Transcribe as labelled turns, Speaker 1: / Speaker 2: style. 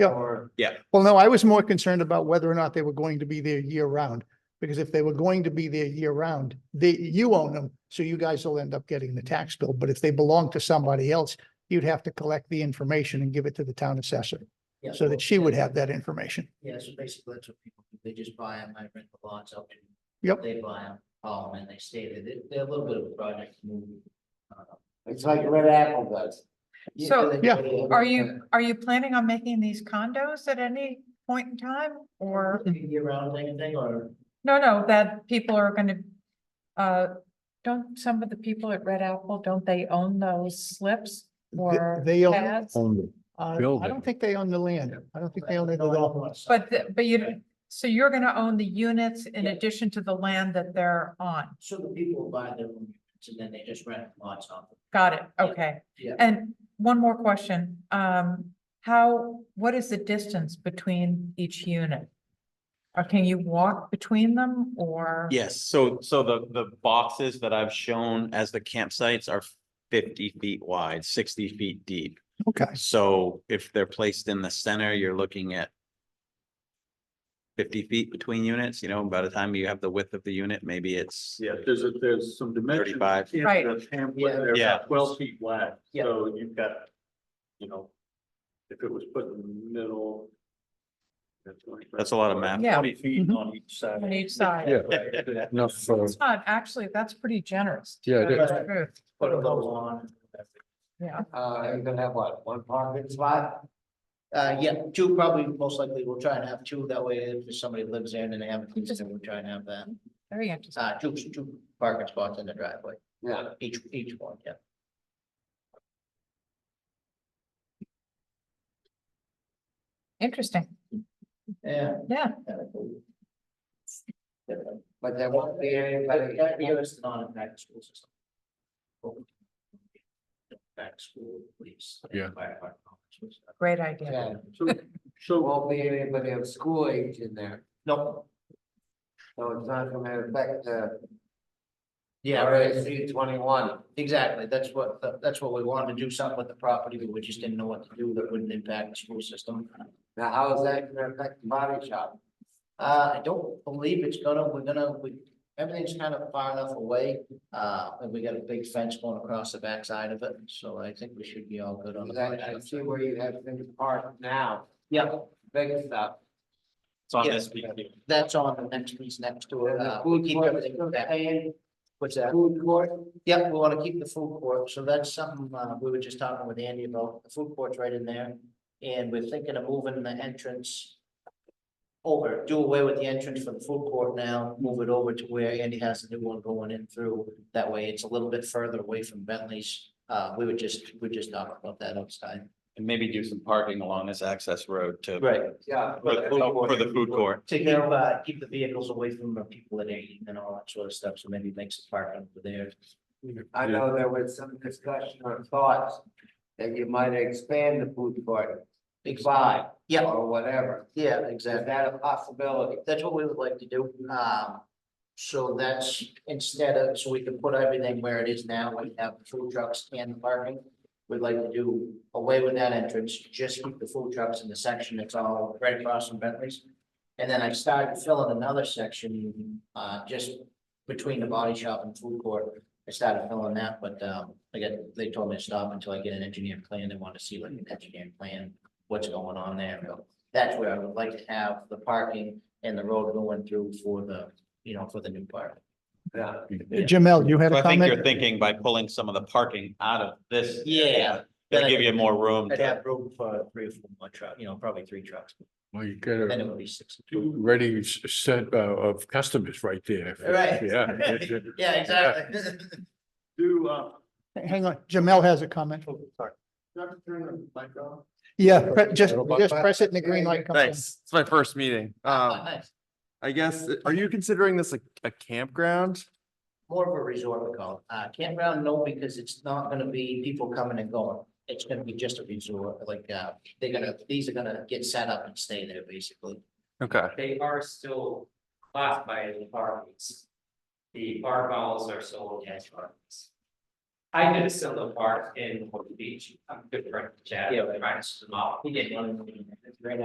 Speaker 1: Yeah.
Speaker 2: Well, no, I was more concerned about whether or not they were going to be there year round. Because if they were going to be there year round, they, you own them, so you guys will end up getting the tax bill. But if they belong to somebody else, you'd have to collect the information and give it to the town assessor
Speaker 3: Yeah,
Speaker 2: so
Speaker 3: well,
Speaker 2: that she would
Speaker 3: yeah,
Speaker 2: have that information.
Speaker 3: Yeah, so basically that's what people do. They just buy them. I rent the lots up. and
Speaker 2: Yep.
Speaker 3: They buy them, haul 'em, and they stay there. They, they're a little bit of a project to move. uh,
Speaker 4: It's like Red Apple does.
Speaker 3: you
Speaker 5: So,
Speaker 3: know, they
Speaker 2: Yeah.
Speaker 3: go to the-
Speaker 5: Are you, are you planning on making these condos at any point in time or,
Speaker 3: Year round thing, thing, or?
Speaker 5: no, no, that people are gonna, uh, don't some of the people at Red Apple, don't they own those slips or
Speaker 2: they own-
Speaker 5: pads?
Speaker 2: Uh, I
Speaker 6: Building.
Speaker 2: don't think they own the land. I don't think they own it at
Speaker 3: No, I don't
Speaker 2: all.
Speaker 3: wanna sell
Speaker 5: But,
Speaker 3: it.
Speaker 5: the- but you, so you're gonna own the units in addition to the land that they're on?
Speaker 3: So the people buy their own units and then they just rent lots off. them.
Speaker 5: Got it,
Speaker 3: Yeah.
Speaker 5: okay.
Speaker 3: Yeah.
Speaker 5: And one more question, um, how, what is the distance between each unit? Or can you walk between them or?
Speaker 1: Yes, so, so the, the boxes that I've shown as the campsites are fifty feet wide, sixty feet deep.
Speaker 2: Okay,
Speaker 1: So if they're placed in the center, you're looking at fifty feet between units, you know, by the time you have the width of the unit, maybe it's,
Speaker 7: Yeah, there's, a- there's some dimensions.
Speaker 1: 35.
Speaker 7: in
Speaker 5: Right.
Speaker 7: the
Speaker 3: Yeah.
Speaker 7: pamphlet, they're
Speaker 1: Yeah.
Speaker 7: about twelve feet wide,
Speaker 3: Yeah.
Speaker 7: so you've got, you know, if it was put in the middle.
Speaker 1: That's a lot of math.
Speaker 5: Yeah.
Speaker 7: Twenty feet
Speaker 3: Mm-hmm.
Speaker 2: Mhm.
Speaker 7: on each side.
Speaker 5: On each side.
Speaker 6: Yeah.
Speaker 7: Right.
Speaker 6: Enough for
Speaker 5: It's not, actually, that's pretty generous. to
Speaker 6: Yeah,
Speaker 5: tell
Speaker 6: it
Speaker 5: you
Speaker 3: is.
Speaker 5: the truth.
Speaker 3: Put a little on.
Speaker 5: Yeah,
Speaker 4: Uh, you're gonna have what, one parking spot?
Speaker 3: Uh, yeah, two probably, most likely, we'll try and have two, that way if somebody lives there and they haven't, used it, we'll try and have that.
Speaker 5: very interesting.
Speaker 3: Uh, two, two parking spots in the driveway,
Speaker 4: Yeah.
Speaker 3: each, each one, yeah.
Speaker 5: Interesting,
Speaker 3: Yeah.
Speaker 5: yeah.
Speaker 3: kinda cool. Different.
Speaker 4: But there won't be
Speaker 3: But
Speaker 4: anybody.
Speaker 3: that year is not in back to school system. Back to school, please.
Speaker 6: Yeah.
Speaker 5: Great idea.
Speaker 4: Yeah,
Speaker 7: So,
Speaker 4: there
Speaker 7: so
Speaker 4: won't be anybody of school age in there,
Speaker 3: No,
Speaker 4: so it's not gonna affect the
Speaker 3: yeah, right,
Speaker 4: RSC twenty-one.
Speaker 3: exactly, that's what, that's what we wanted to do, something with the property, but we just didn't know what to do that wouldn't impact the school system.
Speaker 4: Now, how is that gonna affect the body shop?
Speaker 3: Uh, I don't believe it's gonna, we're gonna, we, everything's kind of far enough away, uh, and we got a big fence going across the backside of it, so I think we should be all good on the.
Speaker 4: Because I, I
Speaker 3: project.
Speaker 4: see where you have things parked now,
Speaker 3: Yeah,
Speaker 4: big stuff.
Speaker 1: It's on
Speaker 3: Yeah.
Speaker 1: this big deal.
Speaker 3: that's on the next piece next to it,
Speaker 4: And the
Speaker 3: uh, we
Speaker 4: food
Speaker 3: keep
Speaker 4: court,
Speaker 3: everything
Speaker 4: still
Speaker 3: back.
Speaker 4: staying,
Speaker 3: What's that?
Speaker 4: food court,
Speaker 3: Yeah, we wanna keep the food court, so that's something, uh, we were just talking with Andy about, the food court's right in there, and we're thinking of moving the entrance. Over, do away with the entrance for the food court now, move it over to where Andy has the new one going in through, that way it's a little bit further away from Bentley's. Uh, we would just, we just talk about that outside.
Speaker 1: And maybe do some parking along this access road to.
Speaker 4: yeah.
Speaker 1: For the food- for the food court.
Speaker 3: To keep, uh, keep the vehicles away from the people that are eating and all that sort of stuff, so maybe make some parking over there.
Speaker 4: I know there was some discussion or thoughts that you might expand the food court, to five
Speaker 3: Yeah,
Speaker 4: or whatever.
Speaker 3: yeah,
Speaker 4: Is
Speaker 3: exactly.
Speaker 4: that a possibility?
Speaker 3: That's what we would like to do. Um, so that's instead of, so we can put everything where it is now, we have the food trucks and the parking. We'd like to do away with that entrance, just keep the food trucks in the section that's all right across from Bentley's. And then I started filling another section, uh, just between the body shop and food court. I started filling that, but, um, again, they told me to stop until I get an engineered plan. They want to see like an engineered plan, what's going on there. So That's where I would like to have the parking and the road going through for the, you know, for the new part.
Speaker 4: Yeah.
Speaker 2: Jamel, you had
Speaker 1: So
Speaker 2: a
Speaker 1: I think
Speaker 2: comment?
Speaker 1: you're thinking by pulling some of the parking out of this.
Speaker 3: Yeah.
Speaker 1: It'll give you more room.
Speaker 3: I'd
Speaker 1: to-
Speaker 3: have room for three or four more trucks, you know, probably three trucks,
Speaker 6: Well, you got
Speaker 3: then it
Speaker 6: a
Speaker 3: would be six.
Speaker 6: ready s- set uh, of customers right there.
Speaker 3: Right.
Speaker 6: Yeah.
Speaker 3: Yeah, exactly.
Speaker 7: do, uh,
Speaker 2: Hang on, Jamel has a comment.
Speaker 1: Oh,
Speaker 7: Dr. Turner, mic on?
Speaker 2: Yeah, pre- just,
Speaker 6: Little
Speaker 2: just
Speaker 6: button.
Speaker 2: press it and the green light comes on.
Speaker 8: Thanks. It's my first meeting. Um, I guess, are you considering this a, a campground?
Speaker 3: More of a resort, we call it. Uh, campground, no, because it's not gonna be people coming and going. It's gonna be just a resort, like, uh, they're gonna, these are gonna get set up and stay there, basically.
Speaker 8: Okay.
Speaker 9: they are still classified as apartments. The bar vowels are sold as apartments. I did a similar part in Horton Beach, I'm different, Chad,
Speaker 3: Yeah.
Speaker 9: right, it's small.
Speaker 3: He didn't want to.